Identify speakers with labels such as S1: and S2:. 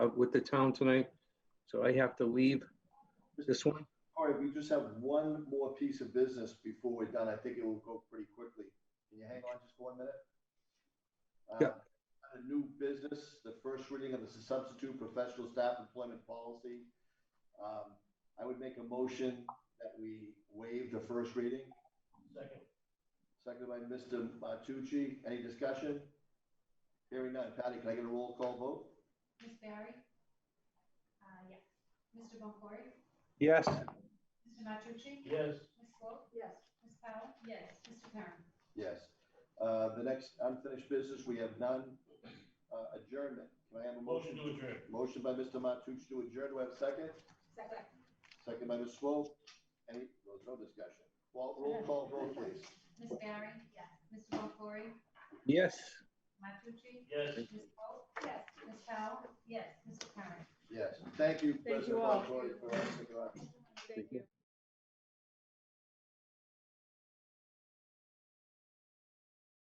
S1: uh, with the town tonight, so I have to leave this one.
S2: All right, we just have one more piece of business before we're done. I think it will go pretty quickly. Can you hang on just for one minute? Uh,
S1: Yeah.
S2: A new business, the first reading of the substitute professional staff employment policy. Um, I would make a motion that we waive the first reading. Second. Seconded by Mr. Martucci. Any discussion? Hearing none. Patty, can I get a roll call vote?
S3: Ms. Barry? Uh, yes. Mr. Boncory?
S1: Yes,
S3: Mr. Matucci?
S4: Yes.
S3: Ms. Swope? Yes. Ms. Powell? Yes. Mr. Perrin?
S2: Yes. Uh, The next unfinished business, we have none. Uh, Adjournment. Can I have a
S4: Motion
S2: motion?
S4: to adjourn.
S2: Motion by Mr. Martucci to adjourn. Do I have a second?
S3: Second.
S2: Second by Ms. Swope. Any, no, no discussion. Well, roll call, vote please.
S3: Ms. Barry? Yes. Mr. Boncory?
S1: yes.
S3: Matucci?
S4: Yes.
S3: Ms. Swope? Yes. Ms. Powell? Yes. Mr. Perrin?
S2: Yes. Thank you,
S5: Thank you
S2: President
S5: all.
S2: Montori, for asking.
S5: Thank you.